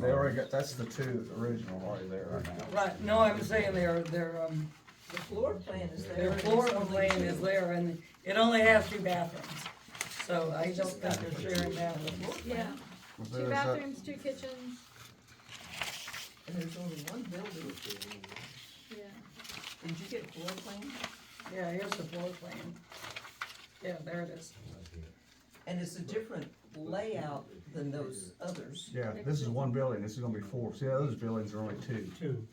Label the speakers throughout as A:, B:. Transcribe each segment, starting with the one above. A: They already got, that's the two original already there right now.
B: Right, no, I'm saying their, their, um,
C: The floor plan is there.
B: their floor plan is there and it only has two bathrooms. So I don't think they're sharing that with floor.
D: Yeah,
A: But
D: two
A: is that-
D: bathrooms, two kitchens,
C: And there's only one building.
D: yeah.
C: Did you get floor plan?
B: Yeah, here's the floor plan. Yeah, there it is.
C: And it's a different layout than those others.
A: Yeah, this is one building, this is gonna be four, see, those buildings are only two,
E: Two.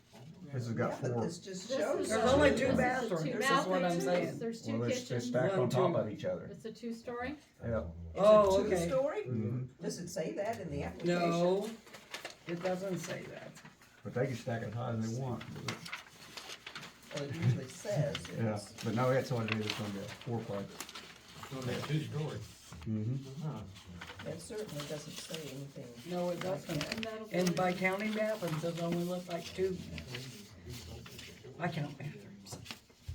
A: this has
C: Yeah,
A: got
C: but
A: four,
C: This just
D: This
C: shows.
D: is
B: There's
D: a-
B: only
D: this
B: two
D: is a
B: bathrooms,
D: two
B: this is what I'm
D: bathrooms,
B: saying.
D: There's
A: well,
D: two
A: they're they're
D: kitchens,
A: stacked on
B: One, two.
A: top of each other.
D: it's a two-story.
A: Yeah.
B: Oh,
C: Is it
B: okay.
C: two-story?
A: Mhm.
C: Does it say that in the application?
B: No, it doesn't say that.
A: But they can stack it high as they want,
C: Well, it usually says.
A: yeah,
C: yes.
A: but no, that's all it is, it's gonna be a fourplex.
E: two stories.
A: Mm-hmm.
C: That certainly doesn't say anything.
B: No, it doesn't.
D: And that'll be-
B: And by counting bathrooms, it only looked like two. I count bathrooms.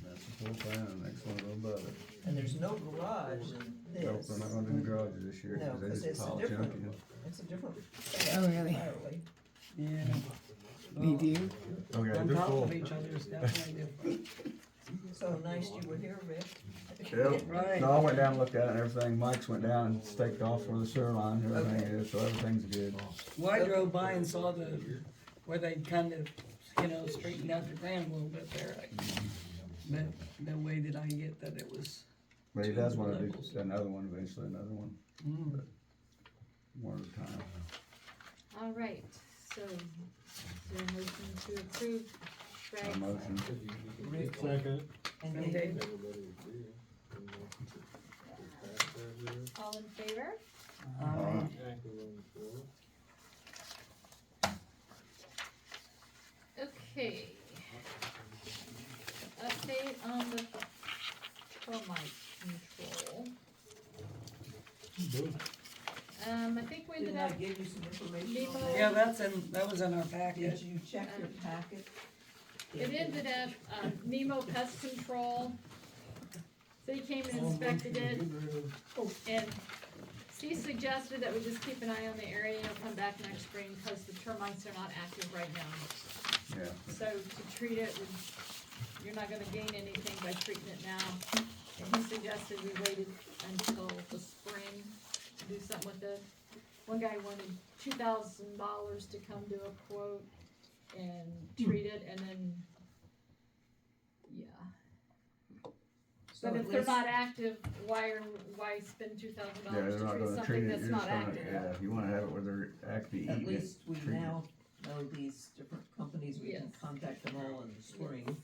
A: That's the floor plan, and the next one's above it.
C: And there's no garage in
A: Nope,
C: this.
A: they're not gonna do garages this year,
C: No,
A: cause they
C: 'cause
A: just
C: it's a
A: pile
C: different-
A: junk in.
C: It's a different.
F: Oh, really?
C: entirely.
B: Yeah.
F: We do.
A: Okay,
B: On
A: they're
B: top
A: full.
B: of each other is definitely different.
C: So nice you were here, Rick.
A: Yep.
B: Right.
A: No, I went down and looked at it and everything, Mike's went down and staked off where the sewer line and everything
C: Okay.
A: is, so everything's good.
B: Well, I drove by and saw the, where they kind of, you know, straightened out the ground a little bit there. I- But no way did I get that it was,
A: But he
B: Two
A: does wanna do
B: levels.
A: another one eventually, another one,
B: mm,
A: one at a time.
D: All right, so, is there a motion to approve
A: A
D: Greg's
A: motion.
C: Rick
E: Second.
C: and
B: and
C: Dave.
B: they-
D: all in favor?
B: um,
D: Okay. Update on the termite control. Um, I think we ended
C: Didn't I
D: up,
C: give you some information on
D: Demo.
C: that?
B: yeah, that's in, that was in our
C: Did
B: package.
C: you check your packet?
D: it ended up, um, Nemo Pest Control. They came and inspected it. And he suggested that we just keep an eye on the area, you know, come back next spring, cause the termites are not active right now.
A: Yeah.
D: So to treat it, we- you're not gonna gain anything by treating it now. And he suggested we waited until the spring to do something with it. One guy wanted two thousand dollars to come do a quote and treat it, and then, yeah.
C: So
D: But
C: at
D: if they're
C: least-
D: not active, why are, why spend two thousand
A: Yeah,
D: dollars
A: they're
D: to
A: not
D: treat
A: gonna treat it,
D: something that's
A: you're just
D: not
A: gonna,
D: active?
A: yeah, you wanna have it where they're actually
C: At
A: eating it.
C: least we
A: treat it.
C: now know these different companies, we can
D: Yes.
C: contact them all in the spring.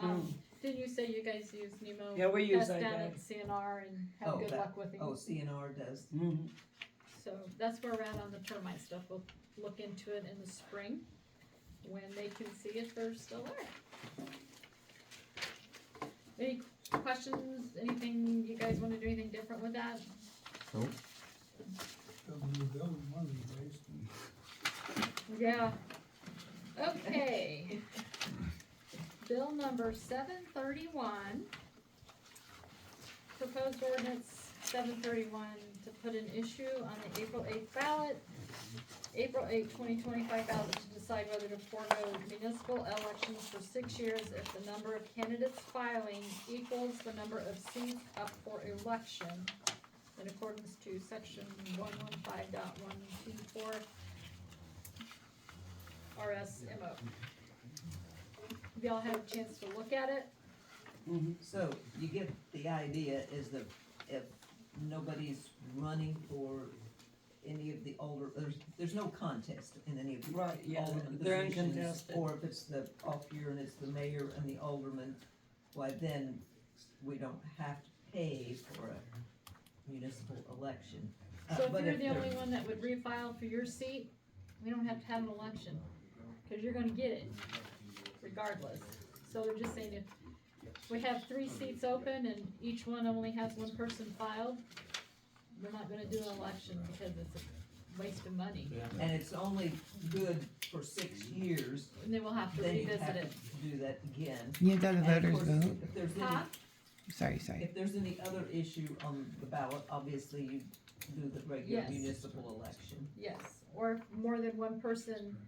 D: Um,
C: Mm.
D: didn't you say you guys use Nemo?
B: Yeah, we use
D: Pest
B: that
D: down
B: guy.
D: at CNR and
C: Oh,
D: have good
C: that-
D: luck with
C: Oh,
D: him,
C: CNR does,
B: Mhm.
D: so that's where we're at on the termite stuff, we'll look into it in the spring when they can see if they're still there. Any questions, anything, you guys wanna do anything different with that?
A: Nope.
D: Yeah. Okay. Bill number seven thirty-one. Proposed ordinance seven thirty-one to put an issue on the April eighth ballot. April eighth, twenty twenty-five ballot to decide whether to forego municipal elections for six years if the number of candidates filing equals the number of seats up for election in accordance to section one one five dot one two four RSMO. Have Y'all had a chance to look at it?
B: Mhm.
C: so you get the idea is that if nobody's running for any of the older, there's, there's no contest in any of the
B: Right, yeah,
C: alderman
B: they're
C: positions,
B: uncontested.
C: or if it's the off year and it's the mayor and the alderman, why then we don't have to pay for a municipal election. Uh,
D: So
C: but
D: if you're the
C: they're-
D: only one that would refile for your seat, we don't have to have an election, cause you're gonna get it regardless. So they're just saying if we have three seats open and each one only has one person filed, we're not gonna do an election because it's a waste of money.
C: And it's only good for six years,
D: And then we'll have to
C: then you
D: revisit
C: have to
D: it.
C: do that again.
F: You done the
C: And of
F: voters
C: course,
F: vote?
C: If there's any
D: Huh?
F: Sorry, sorry.
C: If there's any other issue on the ballot, obviously you do the regular
D: Yes.
C: municipal election.
D: Yes, or if more than one person